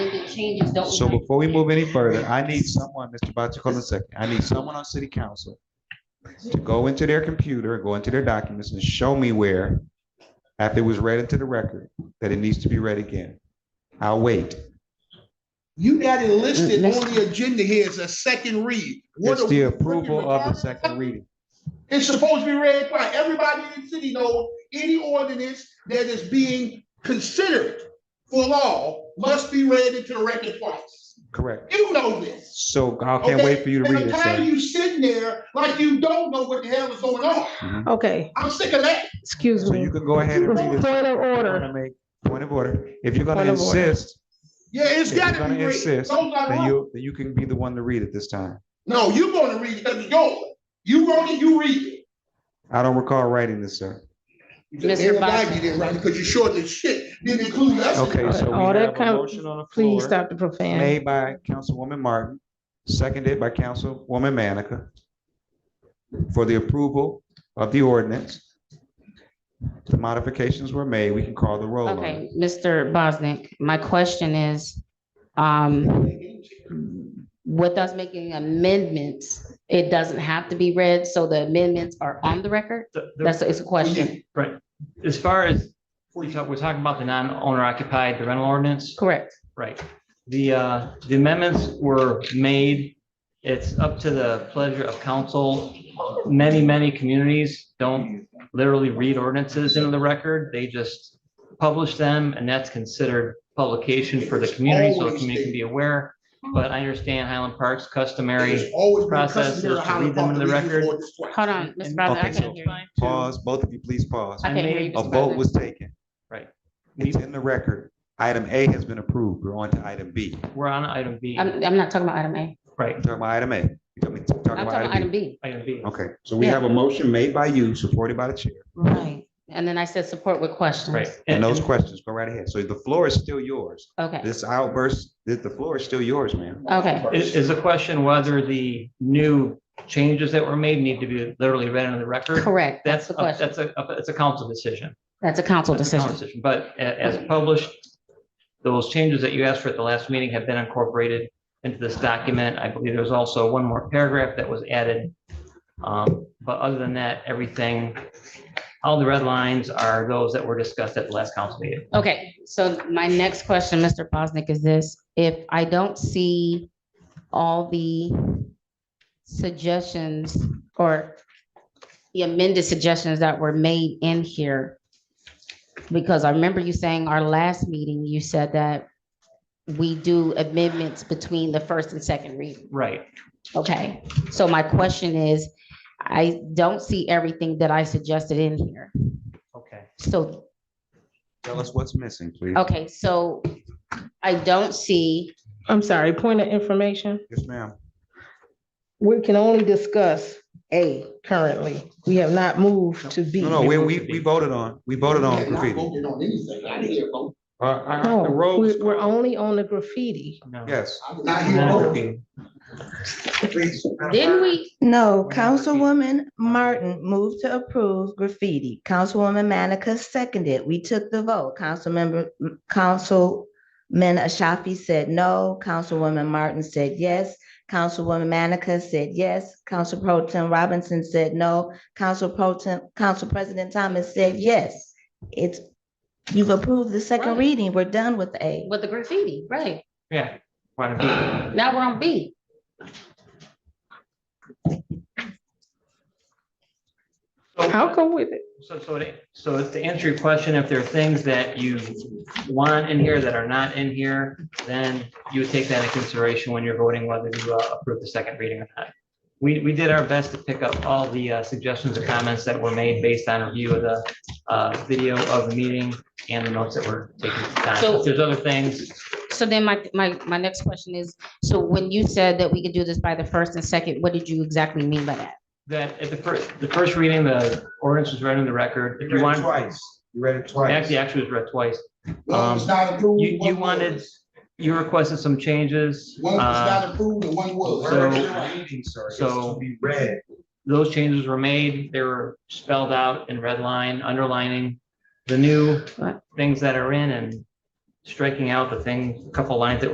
changes don't. So reflect- before we move any further, I need someone, Mr. Bachi, hold on a second. I need someone on city council to go into their computer, go into their documents and show me where, after it was read into the record, that it needs to be read again. I'll wait. You got it listed Let's- on the agenda here as a second read. What Mm-hmm. It's are the we- approval of the second reading. It's supposed to be read by everybody in the city knows any ordinance that is being considered for law must be read into the record twice. Correct. You know this. So I can't wait for you to okay? read And it, I'm tired of sir. you sitting there like you don't know what the hell is going on. Mm-hmm. Okay, I'm sick of that. excuse So me. you can go ahead and read it. Point of order. Wanna make- Point of order. If you're gonna Point of order. insist, Yeah, it's If you're gotta gonna be read. insist, Those are then wrong. you, then you can be the one to read it this time. No, you're gonna read it, because it's yours. You wrote it, you read it. I don't recall writing this, sir. Mr. Everybody Boxer. didn't write it, because you short as shit, didn't include us. in it. Okay, so All we that have a kind- motion on the Please floor stop the profanity. made by Councilwoman Martin, seconded by Councilwoman Manica for the approval of the ordinance. The modifications were made. We can call the roll on it. Okay, Mr. Bosnick, my question is, um, with us making amendments, it doesn't have to be read, so the amendments are on the record? The- the- That's, it's a question. Right, as far as, we talk- we're talking about the non-owner occupied, the rental ordinance, Correct. right? The, uh, the amendments were made, it's up to the pleasure of council. Many, many communities don't literally read ordinances into the record, they just publish them, and that's considered publication for the community, so the community can be aware. But I understand Highland Park's customary, It's always been process is customary to how read them in the the public record. records work. Hold on, Mr. And- Bosnick, I okay, can't so- hear you. Pause, both of you, please pause. I can't hear you, A Mr. vote Bosnick. was taken. Right. It's in the record. Item A has been approved. We're on to item B. we're on item B, I'm, I'm not talking about item A. right, Talking about item A. Talking I'm talking talking about about item item B. B. item B. Okay, so we Yeah. have a motion made by you, supported by the chair. Right. And then I said support with questions. Right. And those questions, go right ahead. So the floor is still yours. Okay, This outburst, the, the floor is still yours, ma'am. okay. Is, is the question whether the new changes that were made need to be literally read into the record? Correct. That's That's, the a- question. that's a, that's a council decision. That's a council That's a council decision. But a- as published, those changes that you asked for at the last meeting have been incorporated into this document. I believe there's also one more paragraph that was added. Um, But other than that, everything, all the red lines are those that were discussed at the last council meeting. Okay, so my next question, Mr. Bosnick, is this, if I don't see all the suggestions or the amended suggestions that were made in here, because I remember you saying our last meeting, you said that we do amendments between the first and second reading. Right. Okay, so my question is, I don't see everything that I suggested in here. Okay. So Tell us what's missing, please. Okay, so I don't see, I'm sorry, point of information. Yes, ma'am. We can only discuss A currently. We have not moved to B. No, no, we, we, we voted on, we voted on Not graffiti. voting on anything. I didn't hear a vote. Uh, uh, No, the road was Oh, we- we're called. only on the graffiti. No. Yes, I did not hear a vote. No. Please. didn't we, We're No, not repeating. Councilwoman Martin moved to approve graffiti. Councilwoman Manica seconded. We took the vote. Councilmember, Councilman Ashafi said no. Councilwoman Martin said yes. Councilwoman Manica said yes. Council Pro Tem Robinson said no. Council Pro Tem, Council President Thomas said yes. It's, you've approved the second Right. reading. We're done with A. with the graffiti, right? Yeah. Why not? Now we're on B. I'll go with it. So, so, to- so to answer your question, if there are things that you want in here that are not in here, then you would take that into consideration when you're voting whether to uh, approve the second reading or not. We, we did our best to pick up all the uh, suggestions or comments that were made based on review of the uh, video of the meeting and the notes that were taken. at the time. So- If There's other things, So then my, my, my next question is, so when you said that we could do this by the first and second, what did you exactly mean by that? that at the first, the first reading, the ordinance was read in the record. If you you read it want, twice. You read it twice. actually, actually it was read twice. One was not approved. Um, you- you one wanted- was. You requested some changes. One was uh, not approved and one was. so- So. so- Be read. those changes were made, they were spelled out in red line, underlining the new Right. things that are in and striking out the thing, a couple lines that